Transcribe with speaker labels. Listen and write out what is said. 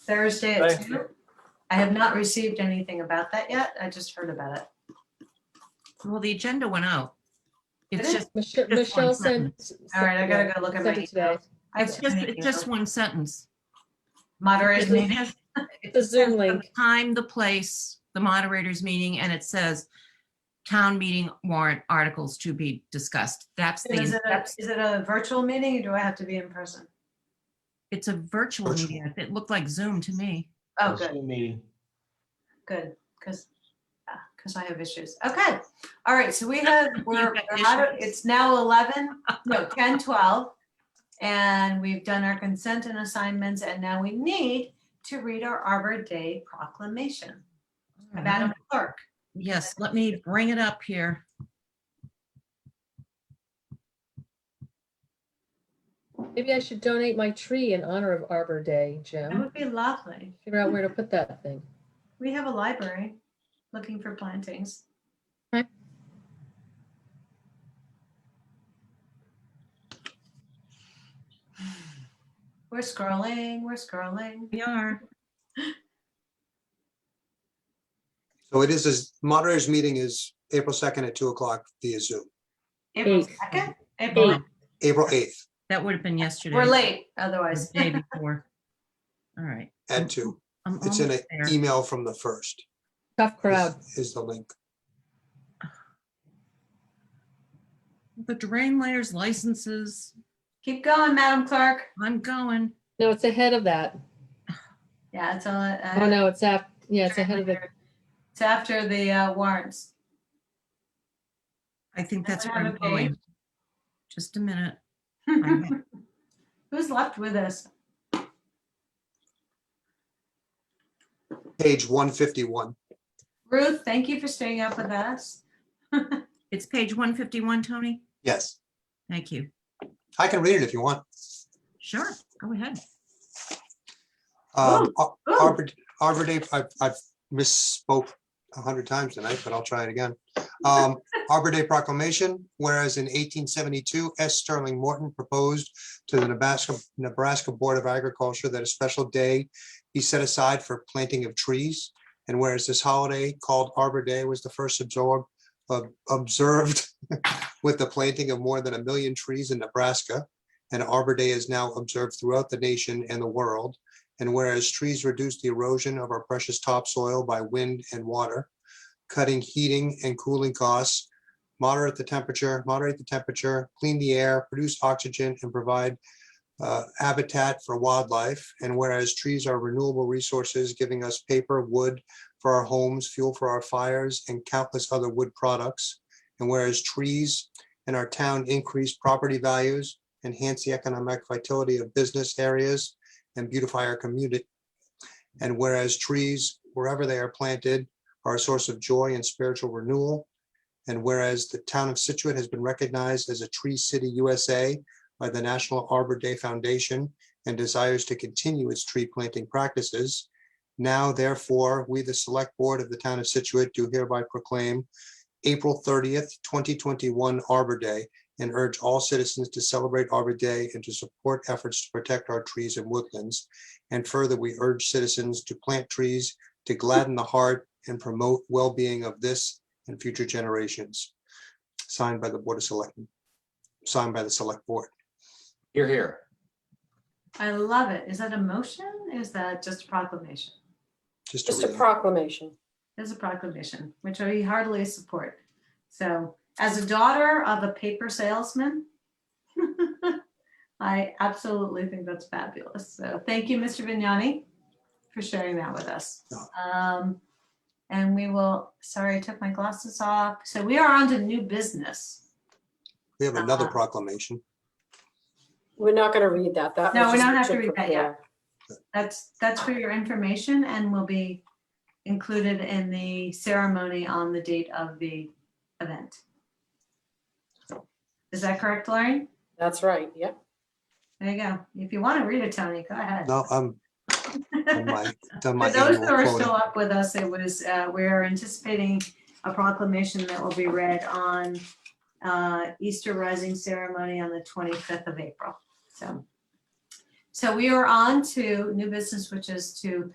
Speaker 1: Thursday at
Speaker 2: Thank
Speaker 1: two. I have not received anything about that yet. I just heard about it.
Speaker 3: Well, the agenda went out. It's
Speaker 1: Did it?
Speaker 3: just,
Speaker 4: Michelle,
Speaker 3: one
Speaker 4: Michelle sent.
Speaker 3: sentence.
Speaker 1: All right, I gotta go look at my
Speaker 4: sent it today.
Speaker 1: email. I
Speaker 3: it's just,
Speaker 1: have an
Speaker 3: it's just
Speaker 1: email.
Speaker 3: one sentence.
Speaker 1: Moderator's
Speaker 3: It
Speaker 1: meeting.
Speaker 3: has
Speaker 4: The Zoom link.
Speaker 3: The time, the place, the moderator's meeting, and it says town meeting warrant articles to be discussed. That's
Speaker 1: And Is
Speaker 3: the,
Speaker 1: it a- is it a virtual meeting or do I have to be in person?
Speaker 3: it's a virtual meeting. It looked like Zoom to me.
Speaker 1: Oh, good,
Speaker 2: Zoom Meeting.
Speaker 1: good, because, because I have issues. Okay, all right, so we have, we're,
Speaker 3: got
Speaker 1: we're out of-
Speaker 3: issues.
Speaker 1: it's now 11, no, 10, 12. And we've done our consent and assignments, and now we need to read our Arbor Day proclamation.
Speaker 3: Mm-hmm.
Speaker 1: Madam Clerk,
Speaker 3: Um, Yes, let me bring it up here.
Speaker 4: Maybe I should donate my tree in honor of Arbor Day,
Speaker 1: that
Speaker 4: Jim.
Speaker 1: would be lovely.
Speaker 4: Figure out where to put that thing.
Speaker 1: We have a library looking for plantings.
Speaker 4: Okay.
Speaker 1: We're scrolling, we're scrolling.
Speaker 3: We are.
Speaker 5: So it is, this moderator's meeting is April 2nd at 2 o'clock via Zoom,
Speaker 1: April
Speaker 4: Eight.
Speaker 1: second, April,
Speaker 3: Eight.
Speaker 5: April 8th
Speaker 3: That would have been yesterday.
Speaker 1: we're late
Speaker 3: or
Speaker 4: Mm-hmm.
Speaker 1: otherwise.
Speaker 3: the Day before. All right.
Speaker 5: at 2.
Speaker 3: I'm
Speaker 5: It's in e- an
Speaker 3: almost there.
Speaker 5: email from the first.
Speaker 4: Tough
Speaker 5: is-
Speaker 4: crowd.
Speaker 5: Is the link.
Speaker 3: The drain layers licenses,
Speaker 1: Keep going, Madam Clerk.
Speaker 3: I'm going.
Speaker 4: No, it's ahead of that.
Speaker 1: Yeah, it's all. uh,
Speaker 4: Oh, no, it's after. yeah, it's ahead of it.
Speaker 1: It's after the uh, warrants.
Speaker 3: I think
Speaker 1: I
Speaker 3: that's
Speaker 1: don't
Speaker 3: where I'm
Speaker 1: have a page.
Speaker 3: going. Just a minute. I have-
Speaker 1: Who's left with us?
Speaker 5: Page 151.
Speaker 1: Ruth, thank you for staying up with us.
Speaker 3: It's page 151, Tony.
Speaker 5: Yes,
Speaker 3: Thank you.
Speaker 5: I can read it if you want.
Speaker 3: Sure, go ahead.
Speaker 5: Um, Ar-
Speaker 1: ooh.
Speaker 5: Arbor, Arbor Day, I've, I've misspoke a hundred times tonight, but I'll try it again. Um, Arbor Day proclamation, whereas in eighteen seventy-two, S. Sterling Morton proposed to the Nebraska, Nebraska Board of Agriculture that a special day be set aside for planting of trees. And whereas this holiday called Arbor Day was the first absorbed, ob- observed with the planting of more than a million trees in Nebraska. And Arbor Day is now observed throughout the nation and the world. And whereas trees reduce the erosion of our precious topsoil by wind and water, cutting heating and cooling costs, moderate the temperature, moderate the temperature, clean the air, produce oxygen, and provide uh, habitat for wildlife. And whereas trees are renewable resources, giving us paper, wood for our homes, fuel for our fires, and countless other wood products. And whereas trees in our town increase property values, enhance the economic vitality of business areas, and beautify our community. And whereas trees, wherever they are planted, are a source of joy and spiritual renewal. And whereas the town of Situate has been recognized as a Tree City USA by the National Arbor Day Foundation and desires to continue its tree planting practices. Now therefore, we, the Select Board of the Town of Situate, do hereby proclaim April thirtieth, twenty twenty-one Arbor Day and urge all citizens to celebrate Arbor Day and to support efforts to protect our trees and woodlands. And further, we urge citizens to plant trees to gladden the heart and promote well-being of this and future generations. Signed by the Board of Selectmen, signed by the Select Board.
Speaker 2: Here, here.
Speaker 1: I love it. Is that a motion? Is that just a proclamation?
Speaker 5: Just to
Speaker 6: Just a
Speaker 5: read it.
Speaker 6: proclamation.
Speaker 1: It's a proclamation, which I heartily support. So as a daughter of a paper salesman, I absolutely think that's fabulous. So thank you, Mr. Vignani, for sharing that with us.
Speaker 5: No.
Speaker 1: Um, And we will, sorry, I took my glasses off. So we are on to new business.
Speaker 5: We have another
Speaker 1: Uh-huh.
Speaker 5: proclamation.
Speaker 6: We're not going to read that. That.
Speaker 1: No,
Speaker 6: was
Speaker 1: we
Speaker 6: just
Speaker 1: don't have to
Speaker 6: pictured
Speaker 1: read that
Speaker 6: from
Speaker 1: yet.
Speaker 6: there.
Speaker 1: That's, that's for your information and will be included in the ceremony on the date of the event. Is that correct, Lauren?
Speaker 6: That's right, yep.
Speaker 1: There you go. If you want to read it, Tony, go ahead.
Speaker 5: No, I'm on
Speaker 1: For
Speaker 5: my, done my
Speaker 1: those
Speaker 5: annual
Speaker 1: that are
Speaker 5: quota.
Speaker 1: still up with us, it was, uh, we're anticipating a proclamation that will be read on uh, Easter Rising Ceremony on the 25th of April. So So we are on to new business, which is to